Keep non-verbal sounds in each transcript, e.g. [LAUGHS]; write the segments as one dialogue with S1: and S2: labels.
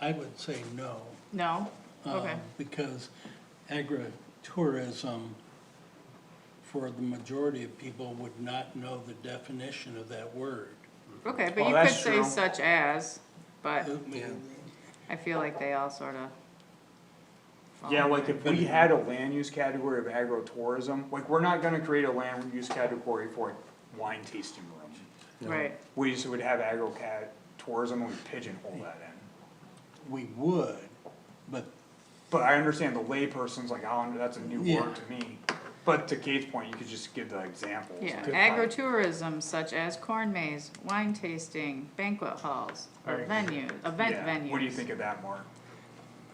S1: I would say no.
S2: No?
S1: um,
S2: Okay.
S1: Because agritourism, for the majority of people, would not know the definition of that word.
S2: Okay, but you
S3: Well,
S2: could
S3: oh, that's
S2: say
S3: true.
S2: such as,
S1: I
S2: but
S1: mean,
S2: I feel like they all sort of.
S3: Yeah,
S2: Um,
S3: like if we had a land use category of agro-tourism, like, we're not gonna create a land use category for a wine tasting room.
S2: Right,
S3: We just would have agro-cat tourism and we pigeonhole that in.
S1: We would, but
S3: But I understand the layperson's like, oh, that's a new
S1: Yeah.
S3: word to me. But to Kate's point, you could just give the examples.
S2: yeah,
S3: Good point.
S2: agritourism such as corn maze, wine tasting, banquet halls, or
S3: Right.
S2: venues, event
S3: Yeah.
S2: venues.
S3: What do you think of that, Mark?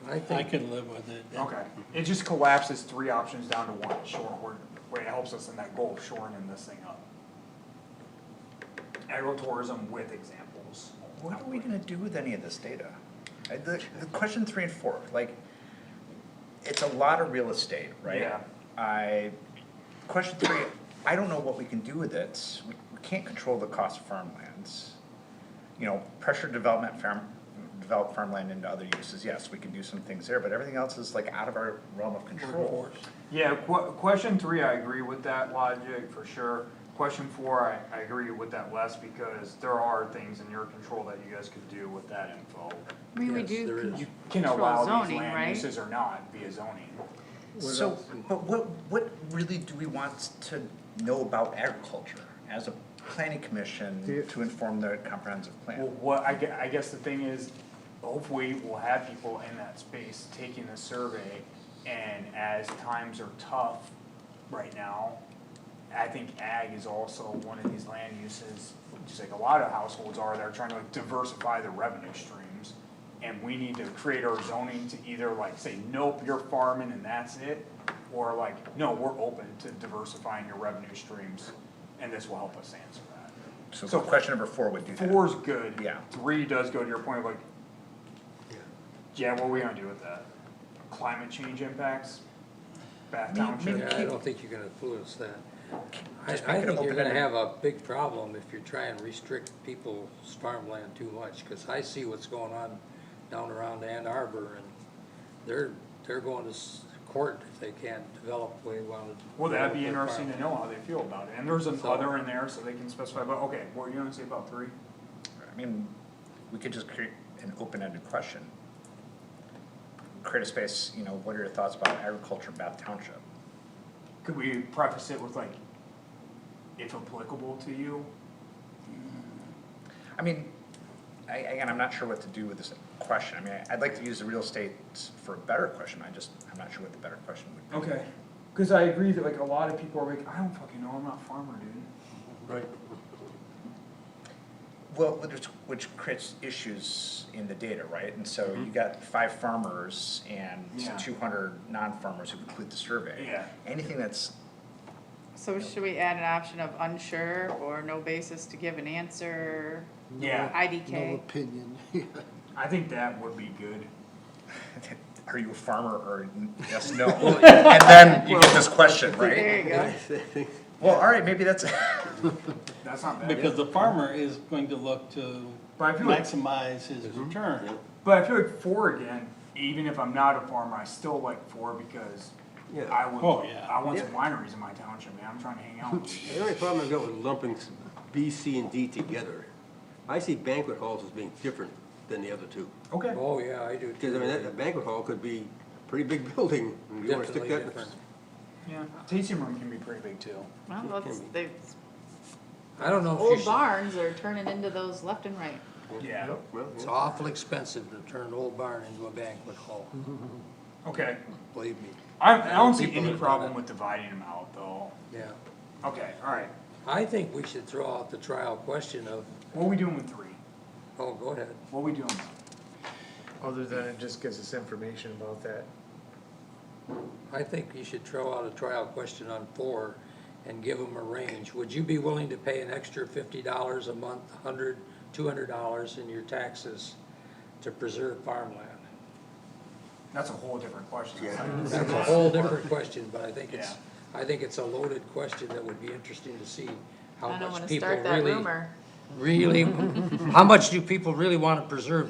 S4: I
S1: I
S4: think,
S1: can live with it.
S3: Okay, it just collapses three options down to one, sure, we're, wait, it helps us in that goal of shoring in this thing up. Agritourism with examples.
S5: What are we gonna do with any of this data? I- The, the question three and four, like, it's a lot of real estate, right?
S3: Yeah.
S5: I, question three, I don't know what we can do with it. We we can't control the cost of farmlands. You know, pressure development farm, develop farmland into other uses, yes, we can do some things there, but everything else is like out of our realm of control.
S3: Yeah, que- question three, I agree with that logic for sure. Question four, I, I agree with that less because there are things in your control that you guys could do with that info.
S2: I mean, we
S4: Yes, there
S2: do
S4: is.
S3: You
S2: con-
S3: can
S2: control
S3: allow these
S2: zoning,
S3: land
S2: right?
S3: uses or not via zoning.
S5: So, but what, what really do we want to know about agriculture as a planning commission to inform the comprehensive plan?
S3: Well, what, I gue- I guess the thing is, hopefully we'll have people in that space taking the survey, and as times are tough right now, I think ag is also one of these land uses, just like a lot of households are, they're trying to like diversify their revenue streams. And we need to create our zoning to either like say, nope, you're farming and that's it, or like, no, we're open to diversifying your revenue streams, and this will help us answer that.
S5: So question number four would do that.
S3: Four's good.
S5: Yeah.
S3: Three does go to your point of like, yeah, what are we gonna do with that? Climate change impacts? Bath
S5: Me- me-
S3: Township?
S4: yeah, I don't think you're gonna influence that. I,
S5: Just
S4: I
S5: make it
S4: think you're gonna
S5: open-ended.
S4: have a big problem if you try and restrict people's farmland too much, cause I see what's going on down around Ann Arbor and they're, they're going to s- court if they can't develop the way they wanted.
S3: Well, that'd be
S4: develop their
S3: interesting to
S4: farm.
S3: know how they feel about it, and there's an
S4: So-
S3: other in there, so they can specify, but, okay, what were you gonna say about three?
S5: I mean, we could just create an open-ended question. Create a space, you know, what are your thoughts about agriculture in Bath Township?
S3: Could we preface it with like, if applicable to you?
S5: I mean, I, again, I'm not sure what to do with this question. I mean, I- I'd like to use the real estate for a better question. I just, I'm not sure what the better question would be.
S3: Okay, cause I agree that like a lot of people are like, I don't fucking know, I'm not a farmer, dude.
S1: Right.
S5: Well, which, which creates issues in the data, right? And so you got five farmers and
S3: Mm-hmm. Yeah.
S5: two hundred non-farmers who complete the survey.
S3: Yeah.
S5: Anything that's [LAUGHS]
S2: So should we add an option of unsure or no basis to give an answer,
S3: Yeah,
S4: No
S2: IDK?
S4: opinion.
S3: I think that would be good.
S5: Are you a farmer or n- yes,
S6: [LAUGHS]
S5: no? And then you get this question,
S2: There
S5: right?
S2: you go.
S5: Well, all right, maybe that's,
S3: That's not bad.
S1: Because the farmer is going to look to
S3: But I feel like- Mhm.
S1: maximize his return.
S3: But I feel like four again, even if I'm not a farmer, I still like four because I would,
S1: Oh, yeah.
S3: I want some wineries in my township, man, I'm trying to hang out with
S7: [LAUGHS]
S3: you.
S7: The only problem I've got with lumping s- B, C, and D together, I see banquet halls as being different than the other two.
S3: Okay.
S4: Oh, yeah, I do.
S7: Because I mean, that a banquet hall could be a pretty big [LAUGHS] building, and you wanna stick
S4: Definitely
S7: that in a
S4: different.
S3: Yeah, tasting room can be pretty big too.
S2: Well, that's, they,
S4: I don't know if you
S2: old
S4: should-
S2: barns are turning into those left and right.
S3: Yeah.
S7: Well,
S4: It's
S7: yeah.
S4: awful expensive to turn an old barn into a banquet hall,
S5: Mm-hmm.
S3: Okay,
S4: believe me,
S3: I, I don't see
S4: People
S3: any
S4: that-
S3: problem with dividing them out though.
S4: yeah.
S3: Okay, alright,
S4: I think we should throw out the trial question of,
S3: what are we doing with three?
S4: oh, go ahead.
S3: What are we doing?
S6: Other than it just gives us information about that.
S4: I think you should throw out a trial question on four and give them a range. Would you be willing to pay an extra fifty dollars a month, a hundred, two hundred dollars in your taxes to preserve farmland?
S3: That's a whole different question.
S4: That's a whole different question, but I think it's,
S3: Yeah.
S4: I think it's a loaded question that would be interesting to see how
S2: I don't
S4: much
S2: wanna
S4: people
S2: start that
S4: really,
S2: rumor. [LAUGHS]
S4: really, how much do people really wanna preserve